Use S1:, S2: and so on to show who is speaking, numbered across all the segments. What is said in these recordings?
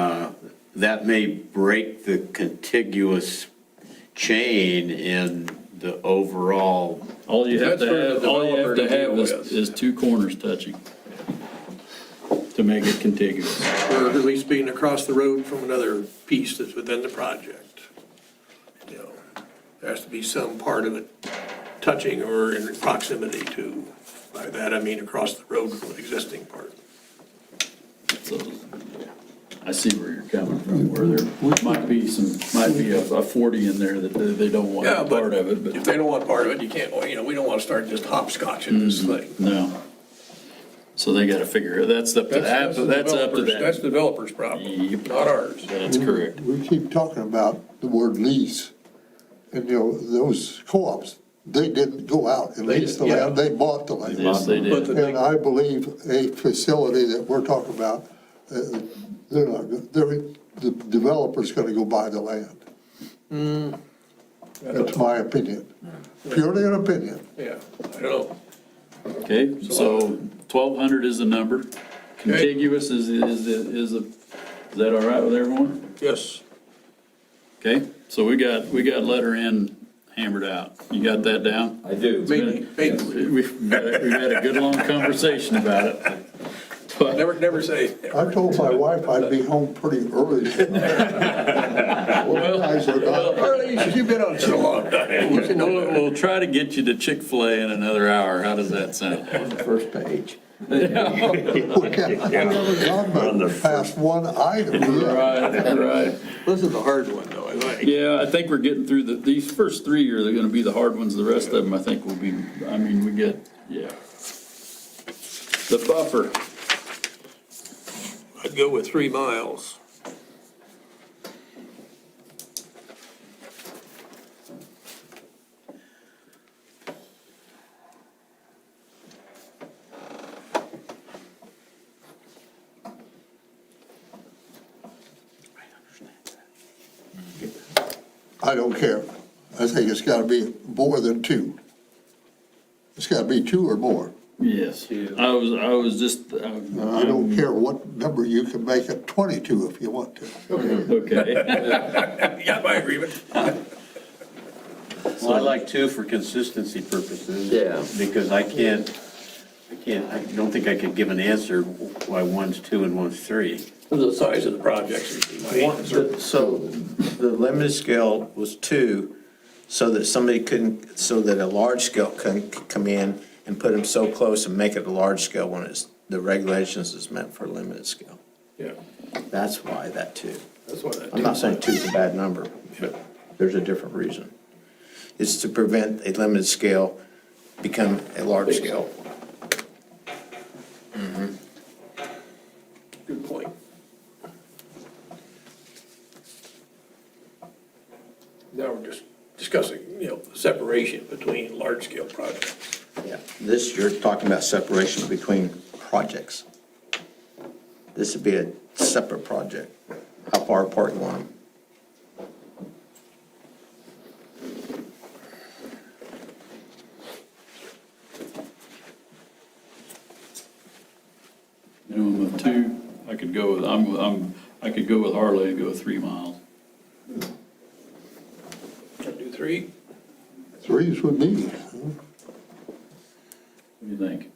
S1: Uh, that may break the contiguous chain in the overall,
S2: All you have
S3: That's
S2: to
S3: for the
S2: have, all you have
S3: developer
S2: to
S3: to
S2: have
S3: deal
S2: is,
S3: with.
S2: is two corners touching to make it contiguous.
S3: or uh, at least being across the road from another piece that's within the project. You know, There has to be some part of it touching or in proximity to, by that I mean across the road from an existing part.
S2: So I see where you're coming from, where there might be some, might be a a 40 in there that they they don't want
S3: Yeah, but
S2: part of it,
S3: If
S2: but
S3: they don't want part of it, you can't, well, you know, we don't want to start just
S2: Hmm.
S3: hopscotching this thing.
S2: no. So they got to figure, that's up to, that.
S3: the
S2: that's up to
S3: developer's- That's
S2: that.
S3: developer's problem,
S2: Yep.
S3: not ours.
S2: That's correct.
S4: We keep talking about the word lease, and you know, those co-ops, they didn't go out and
S3: They
S4: lease the
S3: did, yeah.
S4: land, they bought the land.
S2: Yes, they
S3: But
S2: did.
S3: the
S4: And
S3: thing,
S4: I believe a facility that we're talking about, uh, they're not, go- they're, the developer's gonna go buy the land.
S3: Mm.
S4: That's my opinion, purely an opinion.
S3: yeah, I don't
S2: Okay, so 1,200 is the number. Contiguous is, is, is, the- is that all right with everyone?
S3: yes.
S2: Okay, so we got, we got letter N hammered out. You got that down?
S5: I do.
S3: Maybe, maybe,
S2: We've, we've had a good long conversation about it. But
S3: never, never say,
S4: I told my wife I'd be home pretty early. Well, guys are not-
S3: Harley, you've been on so long. We should know a
S2: we'll,
S3: little
S2: we'll try to get you to Chick-fil-A in another hour. How does that sound?
S5: First page.
S4: I've never gone but past one item yet.
S2: Right, right.
S3: This is a hard one, though, I think.
S2: Yeah, I think we're getting through the, these first three are gonna be the hard ones. The rest of them, I think, will be, I mean, we get, yeah. The buffer,
S3: I'd go with three miles.
S4: I don't care. I think it's gotta be more than two. It's gotta be two or more.
S2: yes. I was, I was just, uh,
S4: I don't care what number, you can make it twenty-two if you want to.
S2: okay.
S3: You got my agreement.
S1: well, I like two for consistency purposes.
S5: Yeah.
S1: Because I can't, I can't, I don't think I could give an answer why one's two and one's three.
S3: The size of the projects would be my answer.
S5: So the limited scale was two, so that somebody couldn't, so that a large scale couldn't c- come in and put them so close and make it a large scale when it's, the regulations is meant for limited scale.
S3: Yeah,
S5: That's why that two.
S3: that's why that.
S5: I'm not saying two's a bad number, but there's a different reason. It's to prevent a limited scale become a large scale.
S3: Good point. Now we're just discussing, you know, the separation between large-scale projects.
S5: Yeah, this, you're talking about separation between projects. This would be a separate project. How far apart you want them?
S2: Minimum of two, I could go with, I'm, I'm, I could go with Harley and go three miles.
S3: Can I do three?
S4: Three's with me.
S2: What do you think?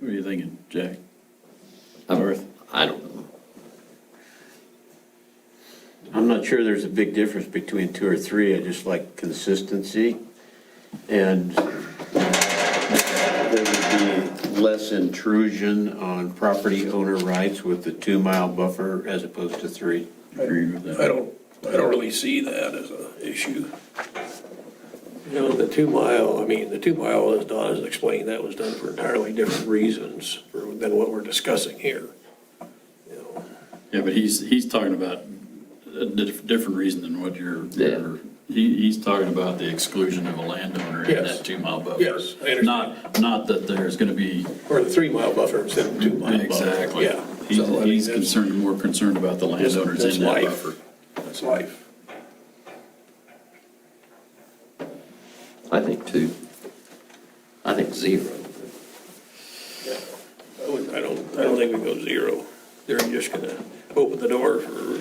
S2: What are you thinking, Jack? North?
S6: I don't know.
S1: I'm not sure there's a big difference between two or three, I just like consistency. And there would be less intrusion on property owner rights with the two-mile buffer as opposed to three.
S2: Agreed with
S3: I
S2: that.
S3: don't, I don't really see that as an issue. You know, the two mile, I mean, the two mile, as Don has explained, that was done for entirely different reasons for- than what we're discussing here. You know,
S2: Yeah, but he's, he's talking about a dif- different reason than what you're, you're- he, he's talking about the exclusion of a landowner in
S3: Yes.
S2: that two-mile buffer.
S3: Yes, I understand.
S2: Not, not that there's gonna be,
S3: Or the three mile buffer instead of two mile buffer.
S2: exactly.
S3: Yeah.
S2: He's,
S3: So, I mean,
S2: he's
S3: that's-
S2: concerned, more concerned about the
S3: that's-
S2: landowners
S3: that's
S2: in that
S3: life.
S2: buffer.
S3: That's life.
S6: I think two. I think zero.
S3: I wouldn't- I don't, I don't think we go zero. They're just gonna open the door for